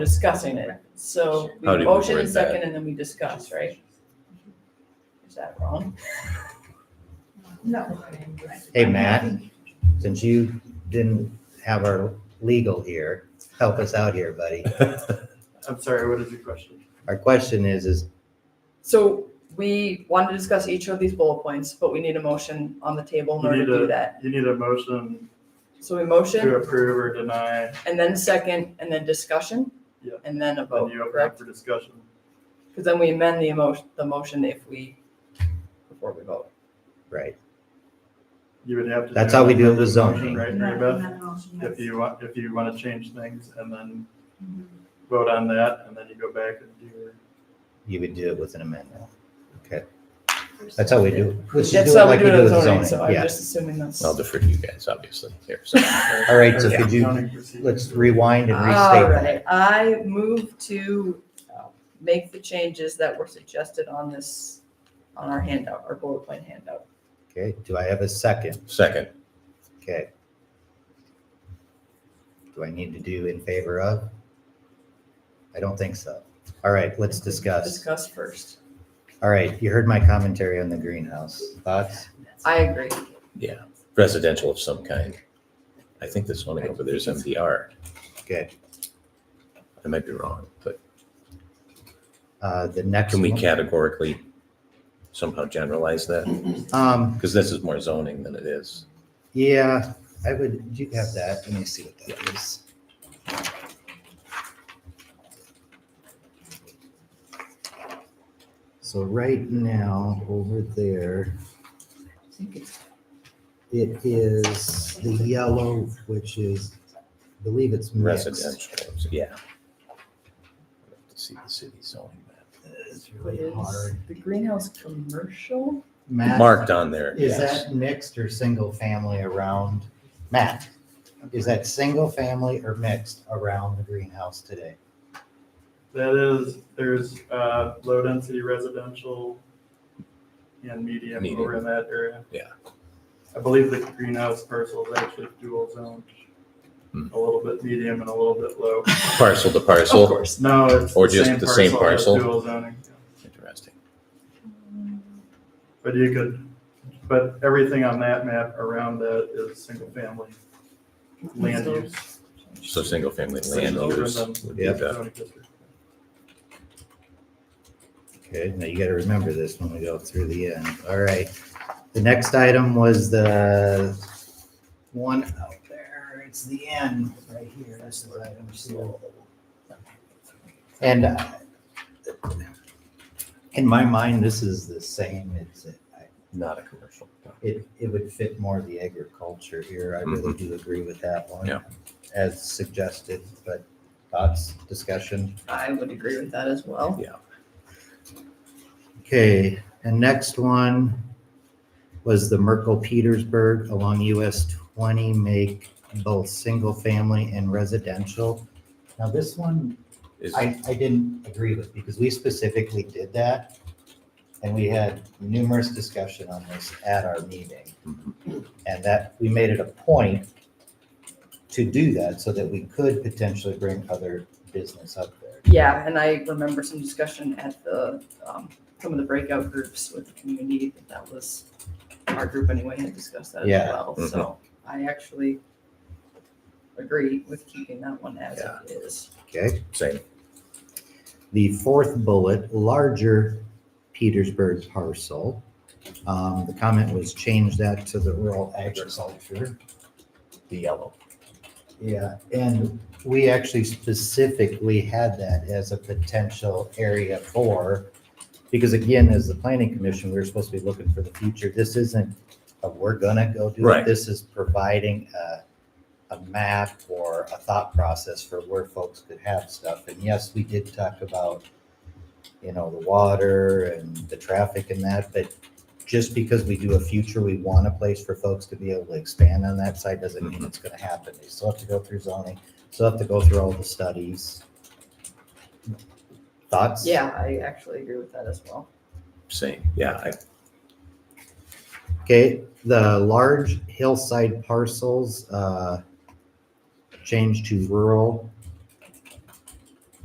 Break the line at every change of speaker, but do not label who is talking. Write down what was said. discussing it. So we
How do you
motion
word
and
that?
second and then we discuss, right? Is that wrong?
No.
Hey, Matt, since you didn't have our legal here, help us out here, buddy.
I'm sorry, what is your question?
Our question is, is
So we want to discuss each of these bullet points, but we need a motion on the table in
We
order to
need
do
a-
that.
You need a motion
So we
to
motion
approve or deny,
and then second and then discussion.
Yeah.
And then a
and
vote,
you open
correct?
up for discussion.
Because then we amend the emotion, the motion if we, before we vote.
right,
You would have to.
That's
do
how we
an
do it with
amendment,
zoning.
Right, Mary Beth? If you want, if you want to change things and then vote on that, and then you go back and do your.
you would do it with an amendment. Okay, that's how we do. it. We should
That's
do it
how we
like
do it on
with
zoning, so I'm
Yeah,
just assuming that's.
I'll defer to you guys, obviously, here, so.
all right, so
Yeah.
could you,
Zoning procedure.
let's rewind and
All
restate
right,
that.
I move to uh, make the changes that were suggested on this, on our handout, our bullet point handout.
Okay, do I have a second?
Second,
Okay. Do I need to do in favor of? I don't think so. All right, let's discuss.
Discuss first.
All right, you heard my commentary on the greenhouse. Thoughts?
I agree.
yeah, residential of some kind. I think this one over there is MDR.
Good.
I might be wrong, but
Uh, the next.
can we
one-
categorically somehow generalize that?
Um,
Because this is more zoning than it is.
yeah, I would, do you have that? Let me see what that is. So right now, over there, it is the yellow, which is, I believe it's mixed.
Residential, yeah. See the city zoning map.
It's
What
really
is
hard.
the greenhouse commercial?
Matt,
Marked on there,
Is
yes.
that mixed or single family around? Matt, is that single family or mixed around the greenhouse today?
That is, there's uh, low density residential and medium
Medium.
over in that area.
Yeah.
I believe the greenhouse parcel is actually dual zoned, a
Hmm.
little bit medium and a little bit low.
Parcel to
Of
parcel,
course.
No, it's.
Or just the same
it's
parcel?
Dual zoning,
interesting.
but you could, but everything on that map around that is single family land
So-
use.
So single family
which
land
is over in
use
the
would be the,
zoning district.
Okay, now you gotta remember this when we go through the end. All right. The next item was the one out there. It's the end right here. This is item two. And uh, in my mind, this is the same. It's, I-
not a commercial.
it, it would fit more the agriculture here. I really do agree with that one.
Yeah.
As suggested, but thoughts, discussion?
I would agree with that as well.
Okay, and next one was the Merkel Petersburg along US twenty make both single family and residential. Now, this one,
Is,
I, I didn't agree with because we specifically did that. And we had numerous discussion on this at our meeting.
Mhm.
And that, we made it a point to do that so that we could potentially bring other business up there.
Yeah, and I remember some discussion at the, um, some of the breakout groups with the community, but that was, our group anyway had discussed that as
Yeah. Mm-hmm.
well, so I actually agree with keeping that one as
Yeah.
it is.
Okay?
same,
The fourth bullet, larger Petersburg parcel. Um, the comment was change that to the rural agriculture.
the yellow.
Yeah, and we actually specifically had that as a potential area for, because again, as the planning commission, we were supposed to be looking for the future. This isn't, a we're gonna go do
Right.
it. This is providing a, a map or a thought process for where folks could have stuff. And yes, we did talk about, you know, the water and the traffic and that, but just because we do a future, we want a place for folks to be able to expand on that side, doesn't mean it's gonna happen. They still have to go through zoning, still have to go through all the studies. Thoughts?
Yeah, I actually agree with that as well.
Same, yeah, I,
Okay, the large hillside parcels, uh, changed to rural